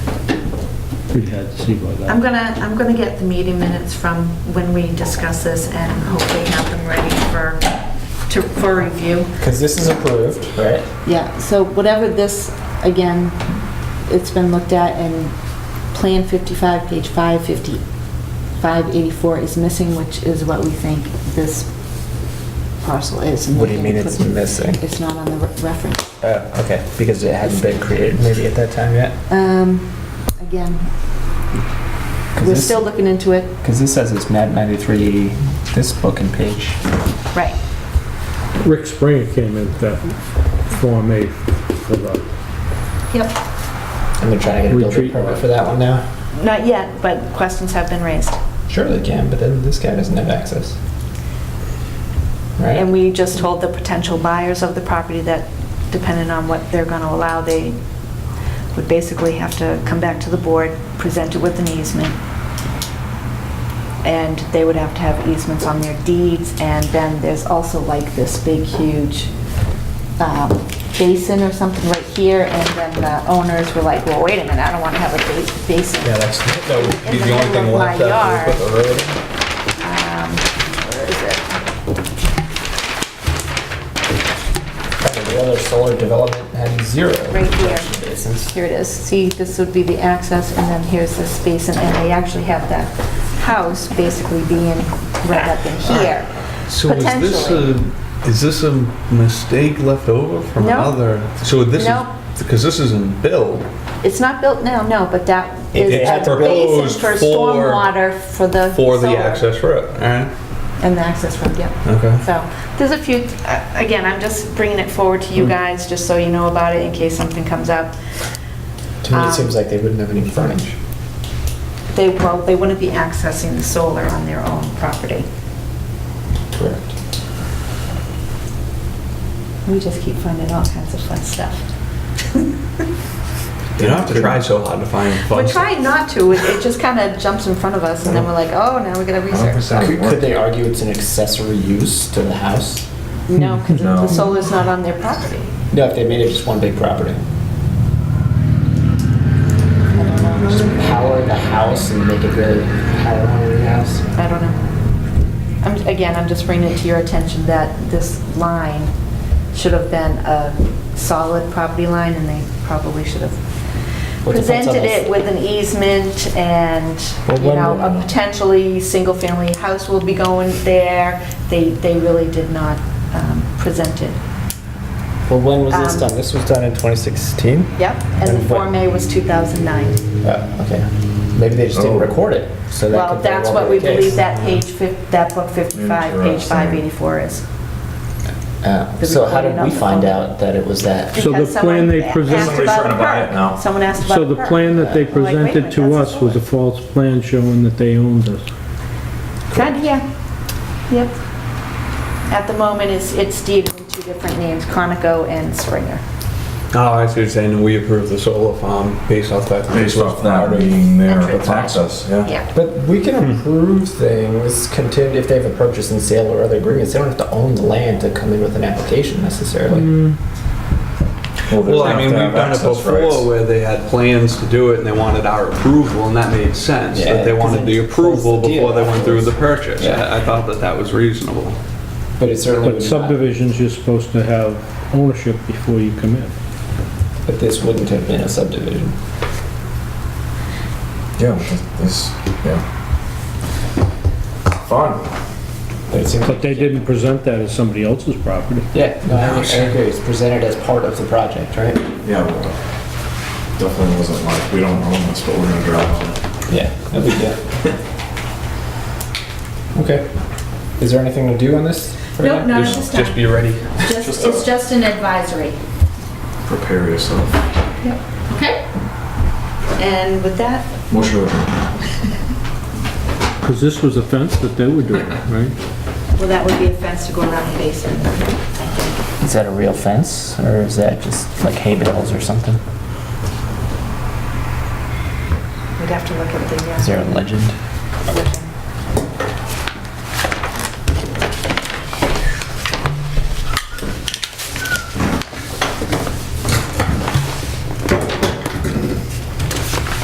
We'd had to see about I'm that. gonna, I'm gonna get the meeting minutes from when we discuss this and hopefully have them ready for, to, for review. Because this is approved, right? Yeah, so whatever this, again, it's been looked at and Plan 55, page 550, 584 is missing, which is what we think this parcel is. and What do you we mean can it's put- missing? It's not on the re- reference. Uh, okay, because it hadn't been created maybe at that time yet. Um, Again, we're still looking into it. Because this says it's map 93, this book and page. Right. Rick Springer came in that Form A for the, Yep, And they're trying to get a building Retreat. permit for that one now. not yet, but questions have been raised. Sure they can, but then this guy doesn't have access. And Right? we just told the potential buyers of the property that depending on what they're gonna allow, they would basically have to come back to the board, present it with an easement. And they would have to have easements on their deeds, and then there's also like this big, huge um, basin or something right here, and then the owners were like, well, wait a minute, I don't want to have a ba- basin. Yeah, that's, that would be the only thing left after we put the road. Um, Where is it? The other solar development had zero. Right here. Basins. Here it is. See, this would be the access, and then here's this basin, and they actually have that house basically being right up in here, So is this potentially. a, is this a mistake left over from No. another? So this No. is, because this isn't built. It's not built now, no, but that It- is it had the basin proposed for for- stormwater for the For the solar. access road, all right? And the access road, yeah. Okay. So, There's a few, uh, again, I'm just bringing it forward Hmm. to you guys, just so you know about it in case something comes up. To me, Um, it seems like they wouldn't have any frontage. They, well, they wouldn't be accessing the solar on their own property. Correct. we just keep finding all kinds of fun stuff. You don't have to try so hard to find We're fun stuff. trying not to, it it just kind of jumps in front of us, and then we're like, oh, now we gotta research. Could could they argue it's an accessory use to the house? No, because the solar's not on their property. No, if they made it just one big property. Just power the house and make it really power hungry house. I don't know. I'm, again, I'm just bringing it to your attention that this line should have been a solid property line, and they probably should have Well, it depends on presented the- it with an easement and, Well, you when- know, a potentially single-family house will be going there. They, they really did not um, present it. Well, when was this Um, done? This was done in 2016? Yep, and the And what- Form A was 2009. Oh, okay. Maybe they just Oh. didn't record it, so that Well, could very that's well what be we the case. believe that page, fif- that book 55, page Interesting. 584 is. Uh, the So how recording did of we the find phone. out that it was that? So the Because plan someone they asked present- about Somebody's trying to the buy it perk. now. Someone asked about so the the perk. plan that they Like, wait a minute, presented to that's us was a false plan showing that they owned us. Kind of, yeah, yep. At the moment, it's, it's deeded in two different names, Conoco and Springer. Oh, I see what you're saying, we approve the solar farm based off that. Based off that being their Entrance. access, yeah. Yeah, But we Hmm. can approve things contingent if they have a purchase and sale or other agreements. They don't have to own the land to come in with an application necessarily. they Hmm. Well, I have mean, to we've have done it access rights. before where they had plans to do it and they wanted our approval and that made sense. Yeah, That they 'cause wanted it the closed approval the deal before they went through the purchase. Yeah. I I thought that that was reasonable. But it certainly But would not. subdivisions, you're supposed to have ownership before you come in. But this wouldn't have been a subdivision. Yeah, but this, yeah. Fun. But it seems But like, they didn't present that as somebody else's property. yeah, no, Oh, I think- I agree. It's presented as part of the project, right? Yeah, well, definitely wasn't like, we don't own this, but we're gonna drive on it. Yeah, no big deal. Okay. Is there anything to do on this? for Nope, now? not at Just- this Just time. be ready. Just, just a- it's just an advisory, Prepare yourself. okay? and with that, Motion to adjourn. Because this was a fence that they were doing, right? well, that would be a fence to go around the basement. Is that a real fence or is that just like hay bales or something? We'd have to look at the, Is uh, there a legend? legend.